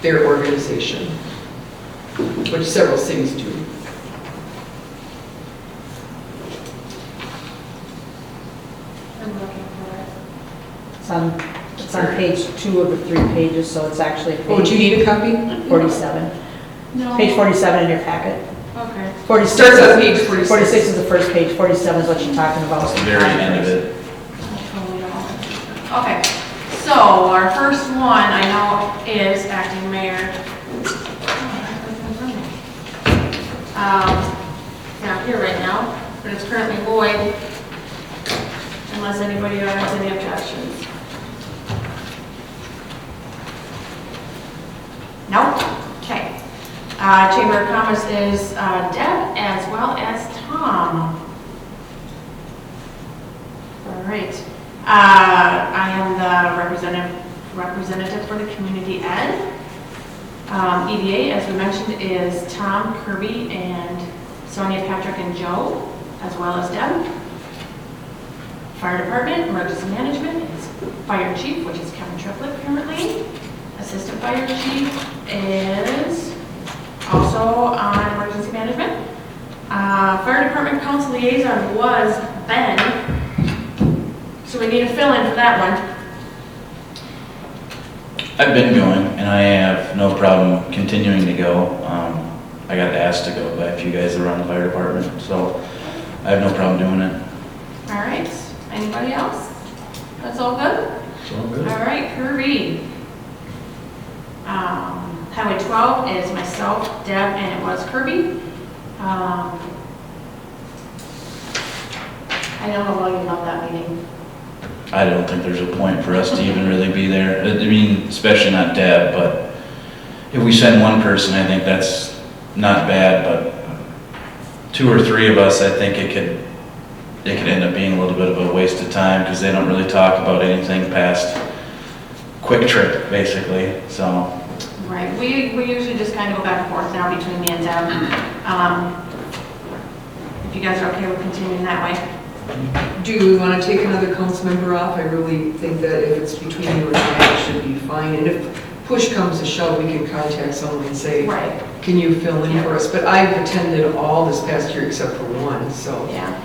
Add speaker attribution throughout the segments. Speaker 1: their organization, which several cities do.
Speaker 2: I'm looking for it.
Speaker 3: It's on, it's on page two of the three pages, so it's actually
Speaker 1: Oh, do you
Speaker 3: page
Speaker 1: need a copy?
Speaker 3: 47.
Speaker 2: No.
Speaker 3: Page 47 in your packet.
Speaker 2: Okay.
Speaker 3: 46
Speaker 1: Starts on page 46.
Speaker 3: 46 is the first page, 47 is what you're talking about.
Speaker 4: It's the very end of it.
Speaker 2: Okay, so our first one I know is acting mayor. Um, It's not here right now, but it's currently void unless anybody has any objections. No? Okay. Uh, Chamber of Commerce is uh, Deb as well as Tom. All right. Uh, I am the representative, representative for the Community Ed. Um, EDA, as we mentioned, is Tom Kirby and Sonia Patrick and Joe, as well as Deb. Fire Department, Emergency Management, is Fire Chief, which is Kevin Triplett currently. Assistant Fire Chief is also on Emergency Management. Uh, Fire Department Council Liaison was Ben, so we need a fill-in for that one.
Speaker 4: I've been going, and I have no problem continuing to go. Um, I got asked to go by a few guys around the fire department, so I have no problem doing it.
Speaker 2: All right, anybody else? That's all good? All right, Kirby. Um, Highway 12 is myself, Deb, and it was Kirby. Um, I don't know why you love that meeting.
Speaker 4: I don't think there's a point for us to even really be there. I mean, especially not Deb, but if we send one person, I think that's not bad, but two or three of us, I think it could, it could end up being a little bit of a waste of time because they don't really talk about anything past quick trip, basically, so.
Speaker 2: Right, we, we usually just kind of go back and forth now between me and Deb. Um, If you guys are okay with continuing that way.
Speaker 1: Do we want to take another council member off? I really think that if it's between you and I, it should be fine. And if push comes to shove, we can contact someone and say,
Speaker 2: Right.
Speaker 1: can you fill in for us? But I've attended all this past year except for one, so.
Speaker 2: Yeah.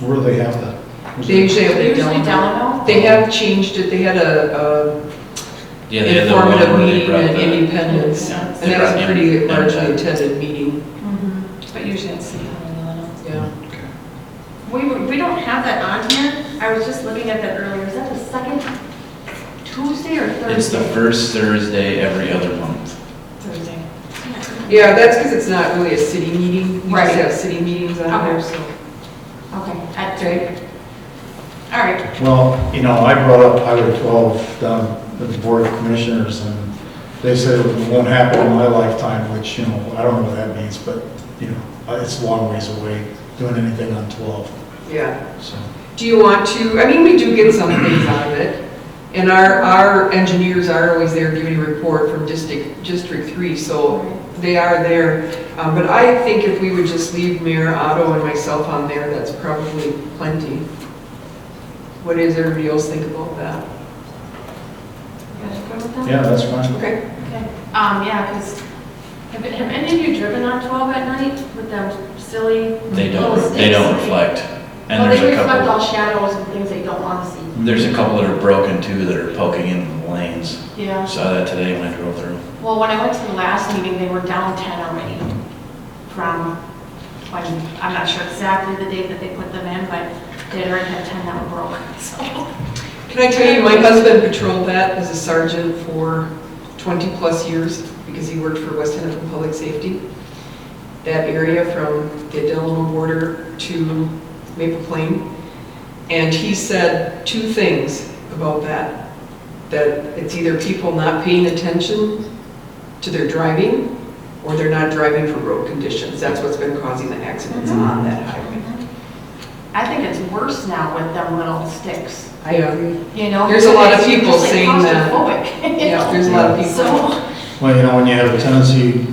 Speaker 5: Where do they have that?
Speaker 1: They usually have the
Speaker 2: Usually
Speaker 1: Delano.
Speaker 2: Delano.
Speaker 1: They have changed it, they had a
Speaker 4: Yeah,
Speaker 1: a
Speaker 4: they had the one
Speaker 1: informative
Speaker 4: where they
Speaker 1: meeting
Speaker 4: brought
Speaker 1: in
Speaker 4: the,
Speaker 1: Independence.
Speaker 2: Yeah.
Speaker 1: And that was a pretty largely attended meeting,
Speaker 2: Mhm. But usually it's City Hall and Delano.
Speaker 1: yeah.
Speaker 2: We, were- we don't have that on here. I was just looking at that earlier. Is that the second Tuesday or Thursday?
Speaker 4: it's the first Thursday every other month.
Speaker 2: Thursday.
Speaker 1: Yeah, that's because it's not really a city meeting. We
Speaker 2: Right.
Speaker 1: just have city meetings on there, so.
Speaker 2: Okay, at three. All right,
Speaker 5: Well, you know, I brought up Highway 12, down with the Board of Commissioners, and they said it won't happen in my lifetime, which, you know, I don't know what that means, but, you know, it's a long ways away, doing anything on 12,
Speaker 1: Yeah.
Speaker 5: so.
Speaker 1: Do you want to, I mean, we do get some things out of it. And our, our engineers are always there giving a report from District, District Three, so they are there. Uh, But I think if we would just leave Mayor Otto and myself on there, that's probably plenty. What does everybody else think about that?
Speaker 2: you guys good with that?
Speaker 5: Yeah, that's fine.
Speaker 1: Okay.
Speaker 2: Okay. Um, yeah, because have, have any of you driven on 12 at night with them silly
Speaker 4: They
Speaker 2: little
Speaker 4: don't,
Speaker 2: sticks?
Speaker 4: they don't reflect. And
Speaker 2: Well,
Speaker 4: there's
Speaker 2: Oh, they
Speaker 4: a
Speaker 2: reflect all
Speaker 4: couple,
Speaker 2: shadows and things that you don't want to see.
Speaker 4: there's a couple that are broken too that are poking into the lanes.
Speaker 2: Yeah.
Speaker 4: Saw that today when I drove through.
Speaker 2: Well, when I went to the last meeting, they were down 10 already from, when, I'm not sure exactly the date that they put them in, but they had already had 10 that were broken, so.
Speaker 1: Can I tell you, my husband patrolled that as a sergeant for 20-plus years because he worked for West Hennepin Public Safety. That area from the Delano border to Maple Plain. And he said two things about that. That it's either people not paying attention to their driving or they're not driving for road conditions. That's what's been causing the accidents
Speaker 5: Mm-hmm.
Speaker 1: on that highway.
Speaker 2: I think it's worse now with them little sticks,
Speaker 3: I agree.
Speaker 2: you know?
Speaker 1: There's a lot of
Speaker 2: because it's
Speaker 1: people
Speaker 2: just, like,
Speaker 1: saying that.
Speaker 2: claustrophobic, you
Speaker 1: Yeah,
Speaker 2: know?
Speaker 1: there's a lot of people.
Speaker 2: So,
Speaker 5: Well, you know, when you have a tendency,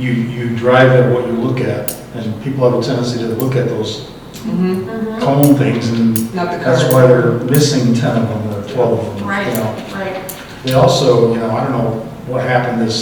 Speaker 5: you, you drive at what you look at, and people have a tendency to look at those
Speaker 1: Mhm.
Speaker 2: mhm.
Speaker 5: cone things, and
Speaker 1: Not the
Speaker 5: that's
Speaker 1: car.
Speaker 5: why they're missing 10 of them or 12 of them. you
Speaker 2: right,
Speaker 5: know.
Speaker 2: right.
Speaker 5: They also, you know, I don't know what happened this